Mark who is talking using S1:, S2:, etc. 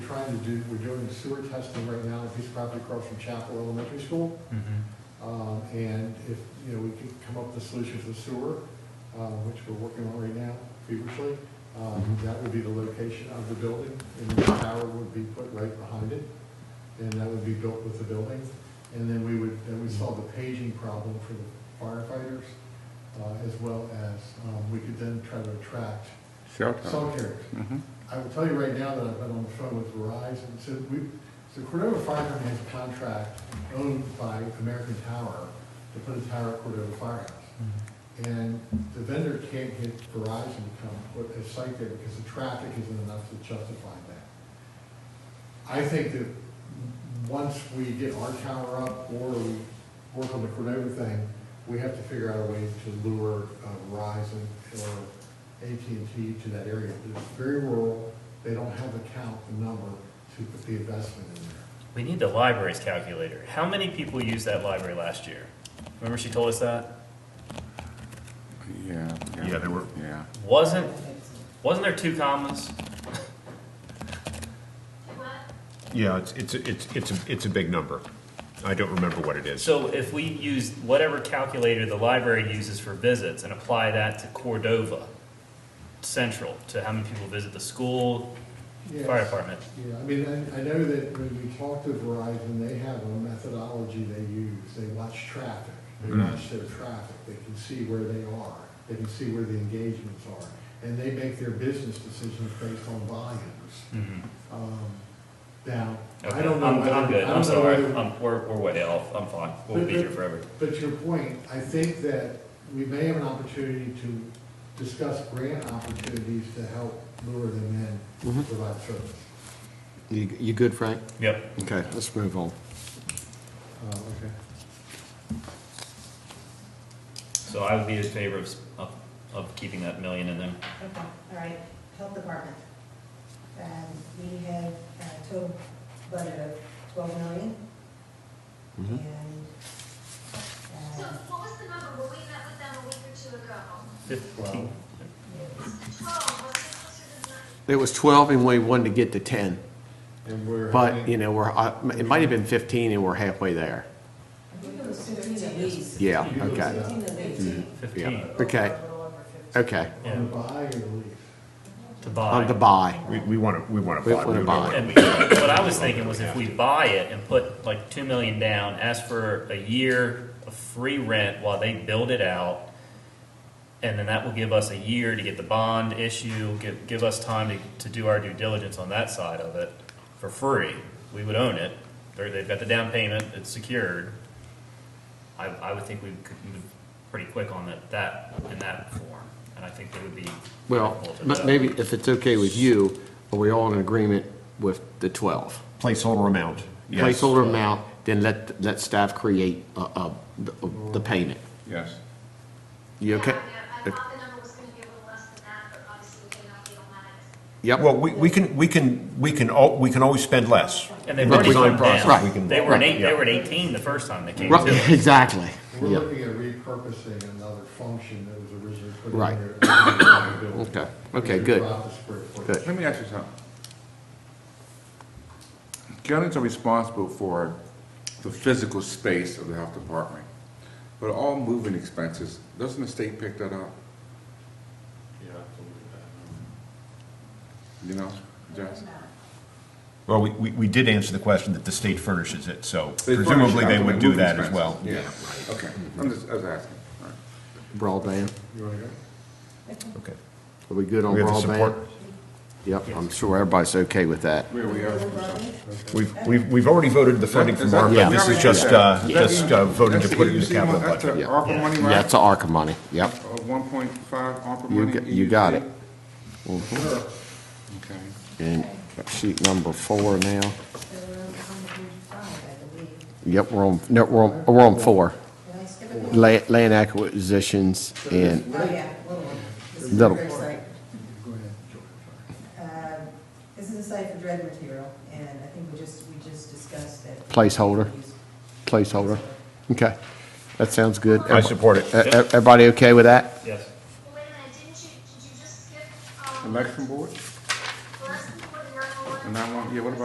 S1: trying to do, we're doing sewer testing right now on a piece of property across from Chapel Elementary School. Um, And if, you know, we could come up with a solution for the sewer, um, which we're working on right now feverishly, um, that would be the location of the building, and the tower would be put right behind it, and that would be built with the building. And then we would, then we solve the paging problem for the firefighters, uh, as well as, um, we could then try to attract
S2: Cell
S1: cell
S2: tower.
S1: carriers.
S2: Mhm.
S1: I will tell you right now that I've been on the phone with Verizon, so we, so Cordova Fire Company has a contract owned by American Tower to put a tower at Cordova Firehouse. And the vendor can't get Verizon to come put a site there because the traffic isn't enough to justify that. I think that once we get our tower up or we work on the Cordova thing, we have to figure out a way to lure uh, Verizon or AT&T to that area. It's very rural, they don't have the count, the number to put the investment in there.
S3: We need the library's calculator. How many people used that library last year? Remember she told us that?
S2: Yeah.
S4: Yeah, there were-
S2: Yeah.
S3: Wasn't, wasn't there two commas?
S4: Yeah, it's, it's, it's, it's, a- it's a big number. I don't remember what it is.
S3: So if we use whatever calculator the library uses for visits and apply that to Cordova Central, to how many people visit the school, fire
S1: Yes.
S3: department,
S1: Yeah, I mean, I, I know that when we talk to Verizon, they have a methodology they use, they watch traffic, they
S3: Mm-hmm.
S1: watch their traffic, they can see where they are, they can see where the engagements are, and they make their business decisions based on volumes. Um, Now, I
S3: Mm-hmm. Okay,
S1: don't know.
S3: I'm,
S1: whether-
S3: I'm
S1: I
S3: good.
S1: don't
S3: I'm
S1: know
S3: sorry.
S1: whether-
S3: I'm, we're, we're way off. I'm fine. We'll be here forever.
S1: But your point, I think that we may have an opportunity to discuss grant opportunities to help lure them in,
S5: Mm-hmm.
S1: to provide service.
S5: You, you good, Frank?
S3: Yep.
S5: Okay, let's move on.
S1: Uh, okay.
S3: So I would be in favor of, s- of, of keeping that million in there.
S6: Okay, all right, health department. Um, we have a total budget of twelve million. Mm-hmm.
S5: Mhm.
S6: And,
S7: So
S6: um,
S7: what was the number when we met with them a week or two ago?
S3: Fifteen.
S7: Twelve, was it closer to nine?
S5: It was 12 and we wanted to get to 10,
S1: And we're.
S5: but,
S1: having-
S5: you know, we're, uh, it might have been 15 and we're halfway there.
S6: I think it was fifteen at least.
S5: Yeah,
S1: You can
S5: okay,
S1: look it up.
S6: at least.
S3: Fifteen.
S5: Okay.
S6: A little over fifteen.
S5: okay.
S1: On the buy or the lease?
S3: To buy.
S5: On the buy.
S4: We, we want to, we want to
S5: We
S4: buy.
S5: wanna
S4: would
S5: buy.
S4: like-
S3: And what I was thinking was if we buy it and put like two million down, ask for a year of free rent while they build it out. And then that will give us a year to get the bond issue, give, give us time to, to do our due diligence on that side of it for free. We would own it. They're, they've got the down payment, it's secured. I, I would think we could move pretty quick on that, that, in that form. And I think they would be.
S5: Well,
S3: helpful to
S5: but
S3: that.
S5: maybe if it's okay with you, are we all in agreement with the 12?
S4: Placeholder amount. yes.
S5: Placeholder amount, then let, let staff create, uh, uh, the, the payment.
S2: Yes.
S5: You okay?
S7: Yeah, I I thought the number was gonna be a little less than that, but obviously we cannot be on that.
S5: Yep,
S4: Well, we, we can, we can, we can, al- we can always spend less.
S3: And they've
S5: But
S3: already
S5: we can
S3: come
S5: process.
S4: We can-
S3: down. They were an eight, they
S4: yeah.
S3: were at eighteen the first time they came
S5: right,
S3: to us.
S5: exactly,
S1: We're
S5: yeah,
S1: looking at repurposing another function that was originally put in
S5: Right.
S1: there. Okay,
S5: Okay. Okay, good. Good.
S2: Let me ask you something. Counties are responsible for the physical space of the health department, but all moving expenses, doesn't the state pick that up? You know, Jess?
S4: Well, we, we, we did answer the question that the state furnishes it, so
S2: They furnish
S4: presumably
S2: it
S4: they
S2: out,
S4: would
S2: but
S4: do
S2: moving
S4: that as
S2: expenses.
S4: well.
S2: Yeah, okay, I'm just, I was asking, all right.
S5: broadband.
S1: You wanna go?
S4: Okay.
S5: Are we good on
S4: We have the
S5: broadband?
S4: support.
S5: Yep, I'm sure everybody's okay with that.
S2: Where we are from something.
S4: We've, we've, we've already voted the funding
S2: Is
S4: from
S2: that-
S4: ARPA.
S5: Yeah.
S4: This
S2: we already
S4: is just,
S2: did that.
S4: uh,
S2: Is that
S4: just uh, voting to
S2: that's
S4: put it in the
S2: EUC
S4: capital
S2: mon- that's
S4: budget.
S2: the
S5: Yeah.
S2: ARPA money, right? Uh,
S5: That's ARCA money, yep.
S2: One point five ARPA
S5: You,
S2: money?
S5: g- you got it.
S2: EUC? Okay.
S5: And sheet number four now.
S6: So we're on page five, I believe.
S5: Yep, we're on, no, we're on, we're on four.
S6: Did I skip a page?
S5: La- Land acquisitions and,
S6: Oh, yeah, little one. This is
S5: Little.
S6: a great site.
S1: Go ahead, George.
S6: Um, This is a site for dread material, and I think we just, we just discussed that.
S5: Placeholder. placeholder. Okay, that sounds good.
S4: I support it.
S5: E- e- Everybody okay with that?
S3: Yes.
S7: Well, wait a minute, didn't you, did you just skip, um,
S2: Election board?
S7: less than what the number was?
S2: And I want, yeah, what about